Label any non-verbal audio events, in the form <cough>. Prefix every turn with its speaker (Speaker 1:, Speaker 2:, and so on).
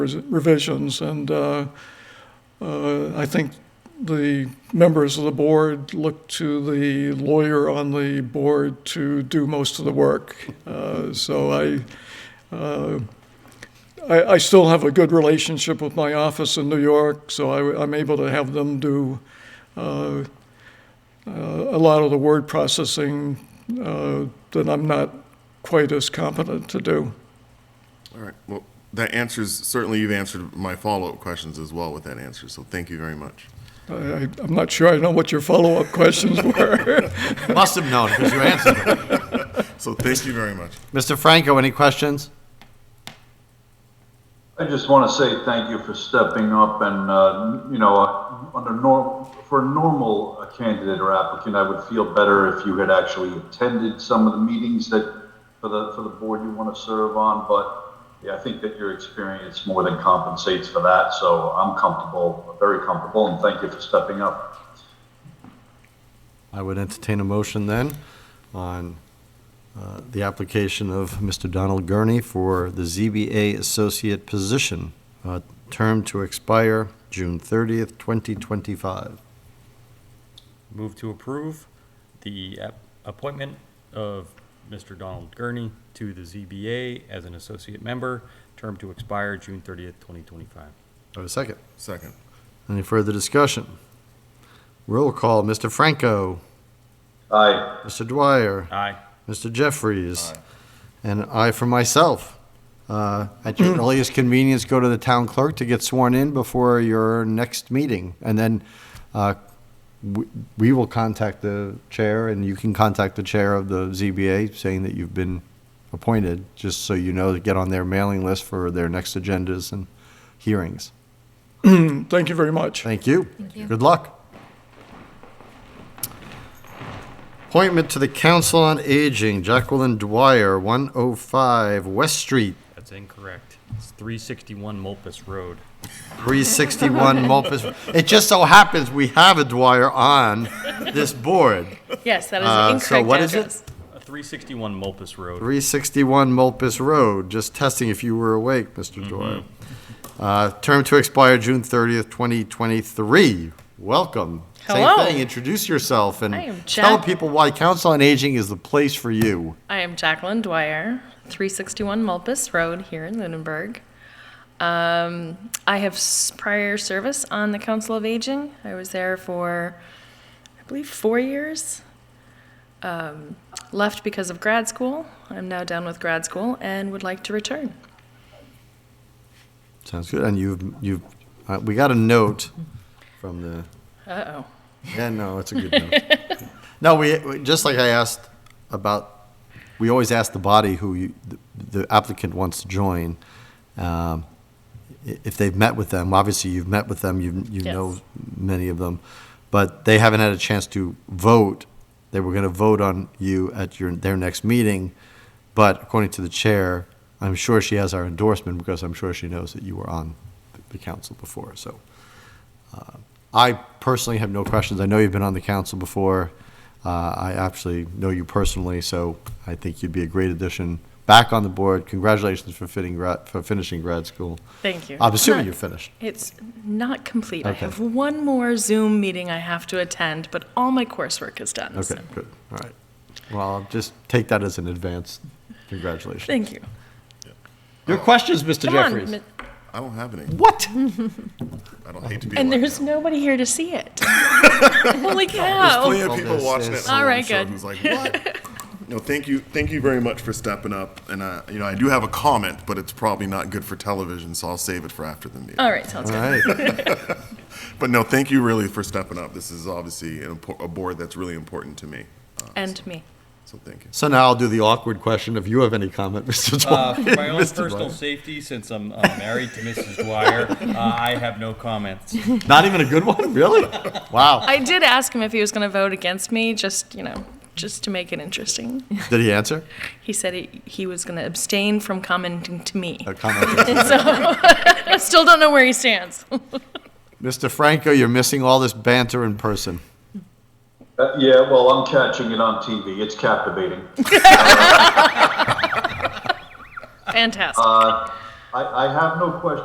Speaker 1: revisions, and uh, uh, I think the members of the board look to the lawyer on the board to do most of the work. Uh, So I, uh, I, I still have a good relationship with my office in New York, so I, am able to have them do uh, uh, a lot of the word processing uh, that I'm not quite as competent to do.
Speaker 2: All right, well, that answers, certainly you've answered my follow-up questions as well with that answer, so thank you very much.
Speaker 1: I, I- I'm not sure I know what your follow-up questions were. <clears throat>
Speaker 3: Must have known, because you answered <laughs> it.
Speaker 2: So thank you very much.
Speaker 3: Mr. Franco, any questions?
Speaker 4: I just want to say thank you for stepping up and, uh, you know, uh, under norm, for a normal uh, candidate or applicant, I would feel better if you had actually attended some of the meetings that, for the, for the board you want to serve on, but yeah, I think that your experience more than compensates for that, so I'm comfortable, very comfortable, and thank you for stepping up.
Speaker 3: I would entertain a motion then on uh, the application of Mr. Donald Gurney for the ZBA associate position, uh, term to expire June 30th, 2025.
Speaker 5: Move to approve the app- appointment of Mr. Donald Gurney to the ZBA as an associate member, term to expire June 30th, 2025.
Speaker 3: I have a second.
Speaker 2: Second,
Speaker 3: Any further discussion? Roll call, Mr. Franco,
Speaker 4: Aye,
Speaker 3: Mr. Dwyer,
Speaker 5: Aye.
Speaker 3: Mr. Jeffries, and I for myself. Uh, At your earliest convenience, go to the town clerk to get sworn in before your next meeting. And then uh, we- we will contact the chair, and you can contact the chair of the ZBA saying that you've been appointed, just so you know to get on their mailing list for their next agendas and hearings.
Speaker 1: Thank you very much.
Speaker 3: Thank you. Good luck. Appointment to the Council on Aging, Jacqueline Dwyer, 105 West Street,
Speaker 5: That's incorrect. It's 361 Mulpus Road.
Speaker 6: <laughs>
Speaker 3: 361 Mulpus. It just so happens we have a Dwyer on this board.
Speaker 6: Yes, that is
Speaker 3: Uh, so
Speaker 6: an incorrect
Speaker 3: what is it?
Speaker 6: address.
Speaker 5: Uh, 361 Mulpus Road.
Speaker 3: 361 Mulpus Road, just testing if you were awake, Mr. Dwyer. Uh, Term to expire June 30th, 2023. Welcome.
Speaker 6: Hello.
Speaker 3: Same thing, introduce yourself
Speaker 6: I am
Speaker 3: and tell
Speaker 6: Jack-
Speaker 3: people why Council on Aging is the place for you.
Speaker 6: I am Jacqueline Dwyer, 361 Mulpus Road here in Lunenburg. Um, I have s- prior service on the Council of Aging. I was there for, I believe, four years. Um, left because of grad school. I'm now done with grad school and would like to return.
Speaker 3: Sounds good. And you've, you've, uh, we got a note from the,
Speaker 6: Uh oh.
Speaker 3: yeah, no, it's a good note. No, we, we- just like I asked about, we always ask the body who you, the applicant wants to join, um, i- if they've met with them. Obviously, you've met with them, you, you
Speaker 6: Yes.
Speaker 3: know many of them, but they haven't had a chance to vote. They were going to vote on you at your, their next meeting, but according to the chair, I'm sure she has our endorsement because I'm sure she knows that you were on the council before, so. uh, I personally have no questions. I know you've been on the council before. Uh, I actually know you personally, so I think you'd be a great addition back on the board. Congratulations for fitting, grad- for finishing grad school.
Speaker 6: Thank you.
Speaker 3: I'm assuming
Speaker 6: Not-
Speaker 3: you're finished.
Speaker 6: It's not complete. I
Speaker 3: Okay.
Speaker 6: have one more Zoom meeting I have to attend, but all my coursework is done. so
Speaker 3: Okay, good, all right. Well, I'll just take that as an advance congratulations.
Speaker 6: Thank you.
Speaker 3: Your questions, Mr.
Speaker 6: Come on,
Speaker 3: Jeffries?
Speaker 6: Mi-
Speaker 2: I don't have any,
Speaker 3: What?
Speaker 2: <laughs> I don't hate to be
Speaker 6: And
Speaker 2: like
Speaker 6: there's
Speaker 2: that.
Speaker 6: nobody here to see
Speaker 3: <laughs>
Speaker 6: it. Holy
Speaker 2: There's plenty
Speaker 6: cow.
Speaker 2: of people
Speaker 3: This
Speaker 2: watching
Speaker 3: is-
Speaker 2: it.
Speaker 6: All right, good.
Speaker 2: Who's like, what?
Speaker 6: <laughs>
Speaker 2: No, thank you, thank you very much for stepping up, and, uh, you know, I do have a comment, but it's probably not good for television, so I'll save it for after the meeting.
Speaker 6: All right, sounds
Speaker 3: All
Speaker 6: good.
Speaker 3: right.
Speaker 2: But no, thank you really for stepping up. This is obviously an impor- a board that's really important to me, Uh,
Speaker 6: And me.
Speaker 2: so thank you.
Speaker 3: So now I'll do the awkward question if you have any comment, Mr.
Speaker 5: Uh,
Speaker 3: Dwyer. <laughs>
Speaker 5: For my own
Speaker 3: Mr.
Speaker 5: personal
Speaker 3: Dwyer.
Speaker 5: safety, since I'm uh, married to Mrs. Dwyer, uh, I have no comments.
Speaker 3: Not even a good one, <laughs> really? Wow.
Speaker 6: I did ask him if he was going to vote against me, just, you know, just to make it interesting.
Speaker 3: Did he answer?
Speaker 6: He said he, he was going to abstain from commenting to me.
Speaker 3: A comment.
Speaker 6: I still don't know where he stands. <laughs>
Speaker 3: Mr. Franco, you're missing all this banter in person.
Speaker 4: Uh, yeah, well, I'm catching it on TV, it's captivating.
Speaker 6: Fantastic.
Speaker 4: I, I have no questions